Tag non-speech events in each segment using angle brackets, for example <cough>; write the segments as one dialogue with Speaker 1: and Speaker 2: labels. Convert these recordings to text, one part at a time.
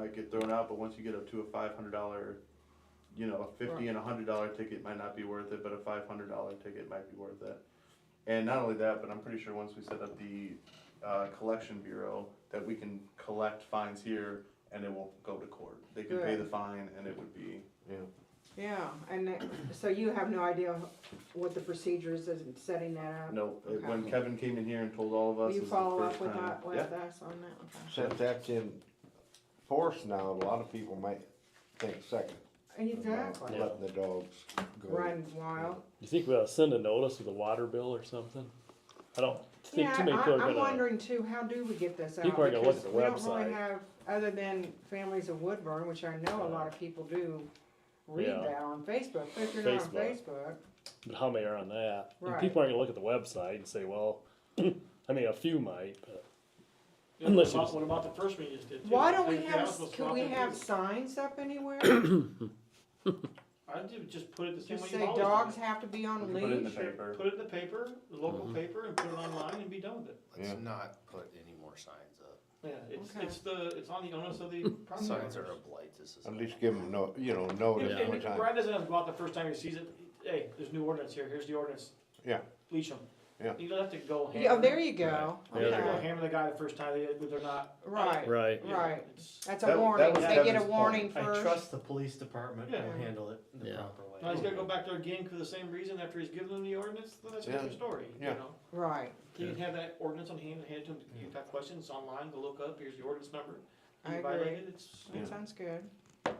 Speaker 1: might get thrown out, but once you get up to a five hundred dollar, you know, a fifty and a hundred dollar ticket might not be worth it, but a five hundred dollar ticket might be worth it. And not only that, but I'm pretty sure once we set up the, uh, collection bureau, that we can collect fines here and it won't go to court. They can pay the fine and it would be,
Speaker 2: Yeah, and that- so you have no idea what the procedure is in setting that up?
Speaker 1: no, it- when Kevin came in here and told all of
Speaker 2: Will
Speaker 1: us, it
Speaker 2: you
Speaker 1: was the
Speaker 2: follow
Speaker 1: first
Speaker 2: up with
Speaker 1: time.
Speaker 2: that, with
Speaker 1: Yeah.
Speaker 2: us on that? Okay.
Speaker 3: Since that's in force now, a lot of people might think second. about
Speaker 2: Exactly,
Speaker 4: Yeah.
Speaker 3: Letting the dogs go.
Speaker 2: run wild.
Speaker 4: You think we'll send a notice with a water bill or something? I don't think
Speaker 2: Yeah,
Speaker 4: too many people are
Speaker 2: I, I'm
Speaker 4: gonna,
Speaker 2: wondering too, how do we get this out?
Speaker 4: People are gonna look
Speaker 2: Because
Speaker 4: at the
Speaker 2: We don't really
Speaker 4: website.
Speaker 2: have, other than families of Woodburn, which I know a lot of people do read
Speaker 4: Yeah.
Speaker 2: that on Facebook, but if you're not on
Speaker 4: Facebook.
Speaker 2: Facebook,
Speaker 4: but how many are on that? And
Speaker 2: Right.
Speaker 4: people aren't gonna look at the website and say, well, <clears throat> I mean, a few might, but Unless you-
Speaker 5: What about- What about the first one you just did? too?
Speaker 2: why don't
Speaker 5: They-
Speaker 2: we
Speaker 5: they
Speaker 2: have,
Speaker 5: asked us
Speaker 2: could
Speaker 5: not
Speaker 2: we
Speaker 5: to
Speaker 2: have
Speaker 5: do it.
Speaker 2: signs up anywhere?
Speaker 5: I did just put it the same way
Speaker 2: Just
Speaker 5: you've
Speaker 2: say
Speaker 5: always done
Speaker 2: dogs
Speaker 5: it.
Speaker 2: have to be
Speaker 1: You
Speaker 2: on
Speaker 1: can Put it in the
Speaker 2: leash or
Speaker 1: paper.
Speaker 5: Put it in the paper, the local paper, and put it online and be done with it.
Speaker 1: Yeah.
Speaker 6: Let's not put any more signs up.
Speaker 5: Yeah, it's,
Speaker 2: Okay.
Speaker 5: it's the, it's on the onus of the <laughs> property
Speaker 6: Signs are
Speaker 5: owners.
Speaker 6: a blight to society.
Speaker 3: At least give them no, you know, notice
Speaker 5: If-
Speaker 3: one
Speaker 5: And
Speaker 3: time.
Speaker 5: Brad doesn't have to go out the first time he sees it, hey, there's new ordinance here, here's the ordinance.
Speaker 3: Yeah.
Speaker 5: Leash them.
Speaker 3: Yeah.
Speaker 5: You don't have to go hammer.
Speaker 2: Yeah, oh, there you go.
Speaker 4: Right.
Speaker 5: You don't have to go
Speaker 2: Okay.
Speaker 5: hammer the guy the first time they, they're not.
Speaker 2: Right.
Speaker 4: right,
Speaker 5: you know,
Speaker 2: Right.
Speaker 5: it's-
Speaker 2: That's a
Speaker 1: That- that
Speaker 2: warning.
Speaker 1: was
Speaker 2: They get a
Speaker 1: Kevin's
Speaker 2: warning
Speaker 7: I
Speaker 2: first.
Speaker 7: trust the police department
Speaker 5: Yeah.
Speaker 7: will handle it the
Speaker 4: Yeah.
Speaker 7: proper way.
Speaker 5: Now he's gotta go back there again for the same reason after he's given them the ordinance, then that's a
Speaker 3: Yeah.
Speaker 5: different story, you
Speaker 3: Yeah.
Speaker 5: know?
Speaker 2: Right.
Speaker 5: You can have that ordinance on hand, hand to him, you've got questions it's online, go look up, here's the ordinance number.
Speaker 2: I
Speaker 5: You
Speaker 2: agree.
Speaker 5: violate it, It's,
Speaker 2: That sounds good.
Speaker 5: I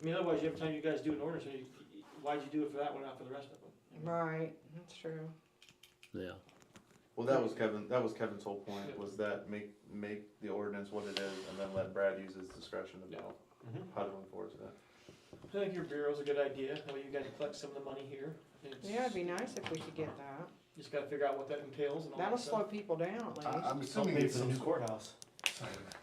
Speaker 5: mean, otherwise, every time you guys do an ordinance, you- you- why'd you do it for that one, not for the rest of them?
Speaker 2: Right. That's true.
Speaker 4: yeah.
Speaker 1: Well, that was Kevin, that was Kevin's whole point,
Speaker 5: Yeah.
Speaker 1: was that make, make the ordinance what it is, and then let Brad use his discretion to know
Speaker 5: Mhm.
Speaker 7: Mm-hmm.
Speaker 1: how to enforce it.
Speaker 5: I think your bureau's a good idea, that way you guys collect some of the money here. It's-
Speaker 2: Yeah, it'd be nice if we could get that.
Speaker 5: Just gotta figure out what that entails and all
Speaker 2: That'll
Speaker 5: that
Speaker 2: slow
Speaker 5: stuff.
Speaker 2: people down at
Speaker 6: I-
Speaker 2: least.
Speaker 6: I'm
Speaker 7: I'll
Speaker 6: assuming
Speaker 7: pay
Speaker 6: it's
Speaker 7: for the
Speaker 6: some
Speaker 7: new
Speaker 6: sort
Speaker 7: courthouse.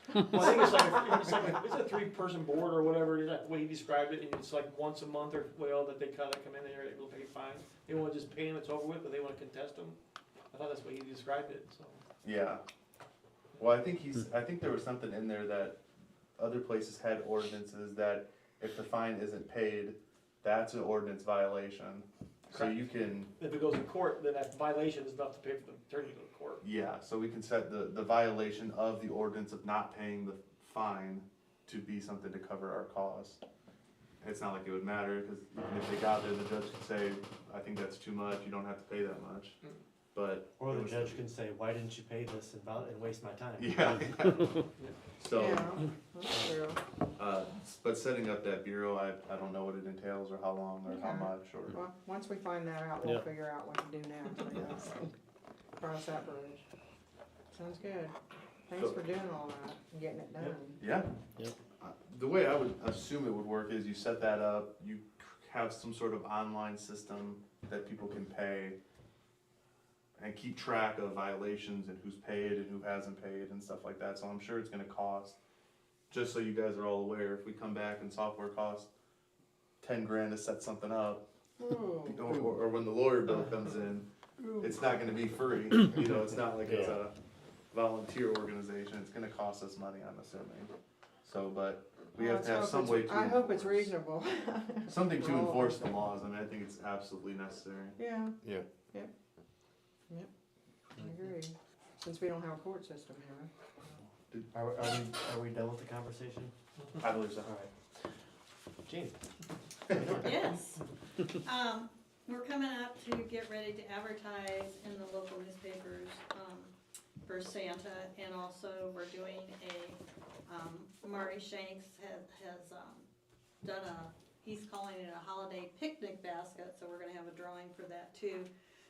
Speaker 8: <laughs>
Speaker 5: Well, I think it's like, a- it's like, a- it's a three-person board or whatever, is that the way he described it, and it's like once a month or, well, that they kinda come in there, they're able to pay fines. They wanna just pay them, it's over with, but they wanna contest them. I thought that's the way he described it, so.
Speaker 1: Yeah. Well, I think he's, I think there was something in there that other places had ordinances that if the fine isn't paid, that's an ordinance violation. So you can,
Speaker 5: If it goes to court, then that violation is enough to pay for the attorney to go to court.
Speaker 1: yeah, so we can set the, the violation of the ordinance of not paying the fine to be something to cover our cause. It's not like it would matter, cause even if they got there, the judge could say, I think that's too much, you don't have to pay that much, but.
Speaker 7: Or
Speaker 1: it
Speaker 7: the
Speaker 1: was-
Speaker 7: judge can say, why didn't you pay this and val- and waste my time? <laughs>
Speaker 1: <laughs> Yeah. So.
Speaker 2: Yeah, that's true.
Speaker 1: Uh, s- but setting up that bureau, I, I don't know what it entails or how long or how
Speaker 2: Okay.
Speaker 1: much or,
Speaker 2: Well, once we find that out, we'll
Speaker 4: Yeah.
Speaker 2: figure out what to do next, I guess. Cross that bridge. Sounds good. Thanks
Speaker 1: So-
Speaker 2: for doing all that and getting it done.
Speaker 1: yeah.
Speaker 4: Yep.
Speaker 1: Uh, The way I would assume it would work is you set that up, you c- have some sort of online system that people can pay and keep track of violations and who's paid and who hasn't paid and stuff like that, so I'm sure it's gonna cost. Just so you guys are all aware, if we come back and software costs ten grand to set something up,
Speaker 2: Ooh,
Speaker 1: or, or or when the lawyer bill comes in, it's not gonna be free, you know, it's not like it's a volunteer organization, it's gonna cost us money, I'm assuming. So, but <laughs> we
Speaker 2: well,
Speaker 1: have to
Speaker 2: let's
Speaker 1: have some
Speaker 2: hope
Speaker 1: way
Speaker 2: it's-
Speaker 1: to.
Speaker 2: I hope it's
Speaker 1: enforce-
Speaker 2: reasonable. <laughs>
Speaker 1: Something to
Speaker 2: Well-
Speaker 1: enforce the laws, I mean, I think it's absolutely necessary.
Speaker 2: Yeah.
Speaker 3: Yeah.
Speaker 2: Yep. Yep. I agree. Since we don't have a court system here.
Speaker 7: Are, we- are we, are we done with the conversation?
Speaker 1: I believe so.
Speaker 7: Alright. Gene,
Speaker 8: Yes. Um, we're coming up to get ready to advertise in the local newspapers, um, for Santa, and also we're doing a, um, Murray Shanks has, has, um, done a, he's calling it a holiday picnic basket, so we're gonna have a drawing for that too.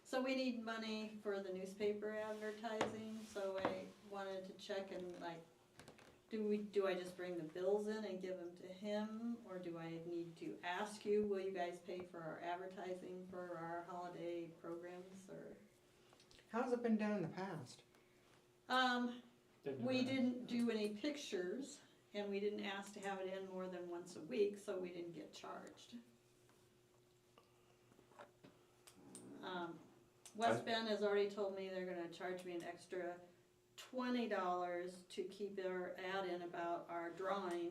Speaker 8: So we need money for the newspaper advertising, so I wanted to check and like, do we, do I just bring the bills in and give them to him, or do I need to ask you, will you guys pay for our advertising for our holiday programs, or?
Speaker 2: How's it been done in the past?
Speaker 8: Um,
Speaker 5: They've
Speaker 8: we
Speaker 5: never-
Speaker 8: didn't do any pictures, and we didn't ask to have it in more than once a week, so we didn't get charged. Um, West Bend has already told me they're gonna charge me an extra twenty dollars to keep their ad in about our drawing